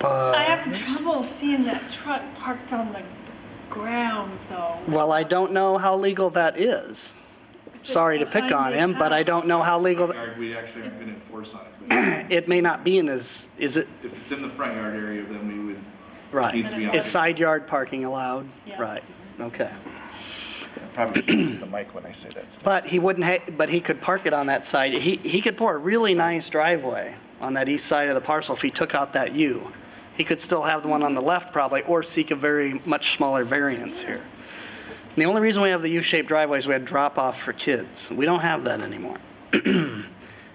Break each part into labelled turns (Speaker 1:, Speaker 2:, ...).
Speaker 1: Uh,
Speaker 2: I have trouble seeing that truck parked on the ground, though.
Speaker 1: Well, I don't know how legal that is.
Speaker 2: it's
Speaker 1: Sorry to pick on
Speaker 2: behind his
Speaker 1: him, but I
Speaker 2: house.
Speaker 1: don't know how legal, th-
Speaker 3: yard, we actually aren't going to enforce on it. But
Speaker 1: it may not be in his, is it,
Speaker 3: If it's in the front yard area, then we would.
Speaker 1: right.
Speaker 3: Needs to be
Speaker 1: Is
Speaker 3: on.
Speaker 1: side yard parking allowed?
Speaker 2: Yeah.
Speaker 1: Right, okay.
Speaker 4: Probably shouldn't use the mic when I say that stuff.
Speaker 1: But he wouldn't, ha- but he could park it on that side. He, he could pour a really nice driveway on that east side of the parcel if he took out that U. He could still have the one on the left probably, or seek a very much smaller variance here. And The only reason we have the U-shaped driveways, we had drop-off for kids. We don't have that anymore.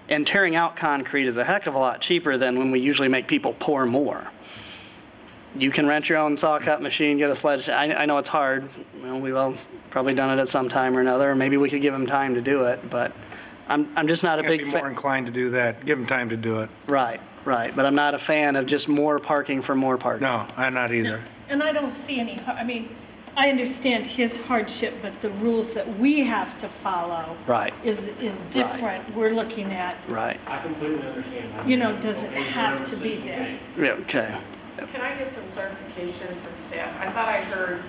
Speaker 1: And tearing out concrete is a heck of a lot cheaper than when we usually make people pour more. You can rent your own saw cut machine, get a sledge, I, I know it's hard, well, we've all probably done it at some time or another, maybe we could give them time to do it, but I'm, I'm just not a
Speaker 5: I'd be
Speaker 1: big
Speaker 5: more
Speaker 1: fan.
Speaker 5: inclined to do that, give them time to do it.
Speaker 1: Right, right, but I'm not a fan of just more parking for more parking.
Speaker 5: No, I'm not either.
Speaker 2: And I don't see any, har- I mean, I understand his hardship, but the rules that we have to follow.
Speaker 1: Right.
Speaker 2: Is, is different. We're looking at,
Speaker 1: Right,
Speaker 6: I completely understand.
Speaker 2: you know, does it have to be there?
Speaker 1: yeah, okay.
Speaker 7: Can I get some clarification from staff? I thought I heard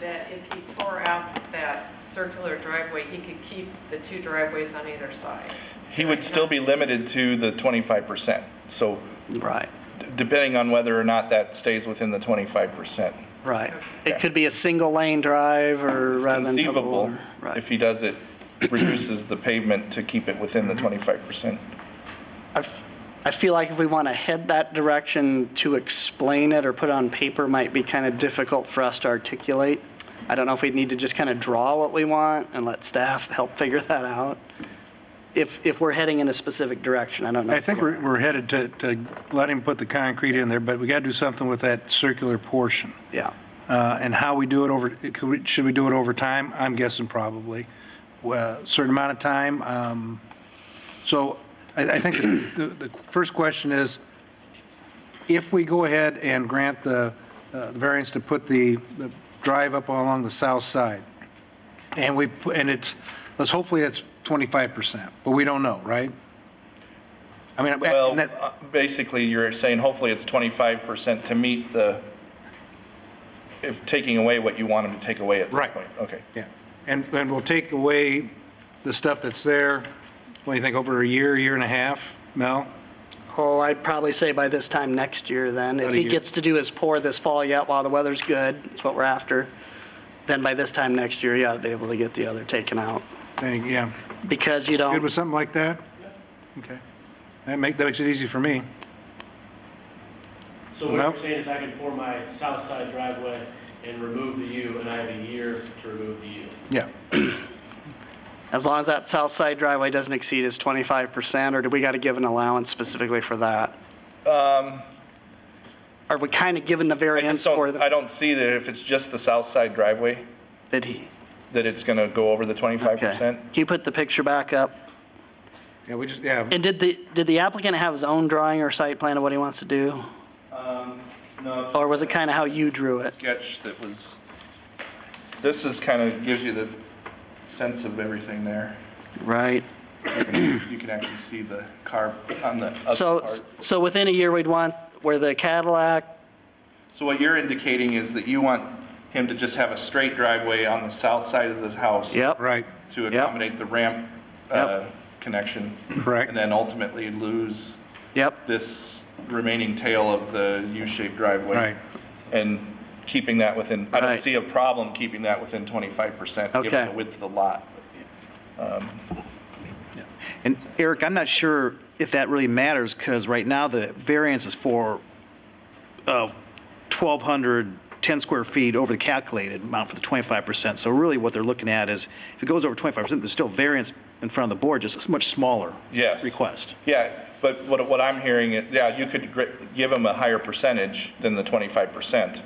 Speaker 7: that if he tore out that circular driveway, he could keep the two driveways on either side.
Speaker 4: He would still be limited to the 25%. So
Speaker 1: Right,
Speaker 4: d- depending on whether or not that stays within the 25%.
Speaker 1: right. It could be a single lane drive or
Speaker 4: It's
Speaker 1: rather than double.
Speaker 4: conceivable
Speaker 1: or- right.
Speaker 4: if he does it, reduces the pavement to keep it within
Speaker 1: Mm-hmm.
Speaker 4: the 25%.
Speaker 1: I f- I feel like if we want to head that direction, to explain it or put it on paper might be kind of difficult for us to articulate. I don't know if we'd need to just kind of draw what we want and let staff help figure that out. If, if we're heading in a specific direction, I don't know.
Speaker 5: I
Speaker 1: if
Speaker 5: think
Speaker 1: we
Speaker 5: we're
Speaker 1: are.
Speaker 5: we're headed to, to let him put the concrete in there, but we got to do something with that circular portion.
Speaker 1: Yeah,
Speaker 5: Uh, And how we do it over, could we- should we do it over time? I'm guessing probably. Well, Certain amount of time. um, So I I think the the first question is, if we go ahead and grant the uh, the variance to put the the drive up along the south side, and we, pu- and it's, let's, hopefully it's 25%, but we don't know, right? I mean,
Speaker 4: Well,
Speaker 5: and that-
Speaker 4: uh, basically, you're saying hopefully it's 25% to meet the, if taking away what you want him to take away at some
Speaker 5: Right.
Speaker 4: point. Okay.
Speaker 5: Yeah, and, and we'll take away the stuff that's there, what do you think, over a year, year and a half, Mel?
Speaker 1: oh, I'd probably say by this time next year then. If
Speaker 5: About a
Speaker 1: he
Speaker 5: year.
Speaker 1: gets to do his pour this fall yet while the weather's good, that's what we're after, then by this time next year, you ought to be able to get the other taken out.
Speaker 5: Then, you- yeah,
Speaker 1: Because you don't.
Speaker 5: good with something like that? Okay, that make, that makes it easy for me.
Speaker 6: So what
Speaker 5: Nope.
Speaker 6: you're saying is I can pour my south side driveway and remove the U, and I have a year to remove the U.
Speaker 5: Yeah,
Speaker 1: As long as that south side driveway doesn't exceed his 25%, or do we got to give an allowance specifically for that? Are we kind of given the
Speaker 4: Um, I just
Speaker 1: variance for,
Speaker 4: don't, I
Speaker 1: the-
Speaker 4: don't see that if it's just the south side driveway,
Speaker 1: that he?
Speaker 4: that it's going to go over the
Speaker 1: okay.
Speaker 4: 25%.
Speaker 1: Can you put the picture back up?
Speaker 5: yeah, we just, yeah,
Speaker 1: And did the, did the applicant have his own drawing or site plan of what he wants to do?
Speaker 4: Um, No.
Speaker 1: Or was it kind of how you drew it?
Speaker 4: sketch that was, this is kind of, gives you the sense of everything there.
Speaker 1: Right.
Speaker 4: You can actually see the car on the other
Speaker 1: So,
Speaker 4: part.
Speaker 1: so within a year, we'd want where the Cadillac,
Speaker 4: So what you're indicating is that you want him to just have a straight driveway on the south side of the house.
Speaker 1: yep.
Speaker 5: right,
Speaker 4: To accommodate the ramp uh, connection.
Speaker 5: Correct.
Speaker 4: And then ultimately lose
Speaker 1: Yep,
Speaker 4: this remaining tail of the U-shaped driveway.
Speaker 5: Right.
Speaker 4: And keeping that within, I don't
Speaker 1: Right.
Speaker 4: see a problem keeping that within 25%,
Speaker 1: Okay.
Speaker 4: given the width of the lot.
Speaker 8: And Eric, I'm not sure if that really matters, because right now the variance is for uh, 1,210 square feet over the calculated amount for the 25%. So really what they're looking at is, if it goes over 25%, there's still variance in front of the board, just a much smaller
Speaker 4: Yes.
Speaker 8: request.
Speaker 4: Yeah, but what, what I'm hearing, is, yeah, you could gr- give them a higher percentage than the 25%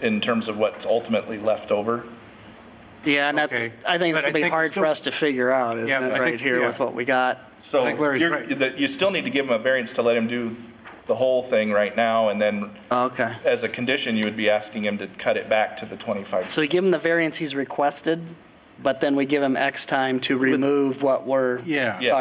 Speaker 4: in terms of what's ultimately left over.
Speaker 1: yeah, and that's,
Speaker 5: Okay.
Speaker 1: I think it's
Speaker 5: But I
Speaker 1: going to be
Speaker 5: think
Speaker 1: hard
Speaker 5: still-
Speaker 1: for us to figure out, isn't
Speaker 5: Yeah,
Speaker 1: it,
Speaker 5: but I
Speaker 1: right
Speaker 5: think-
Speaker 1: here
Speaker 5: yeah.
Speaker 1: with what we got?
Speaker 4: So
Speaker 5: I think Larry's
Speaker 4: you're,
Speaker 5: right.
Speaker 4: that- you still need to give them a variance to let him do the whole thing right now, and then
Speaker 1: Okay.
Speaker 4: as a condition, you would be asking him to cut it back to the 25%.
Speaker 1: So we give him the variance he's requested, but then we give him X time to remove what we're
Speaker 5: Yeah.
Speaker 4: Yeah.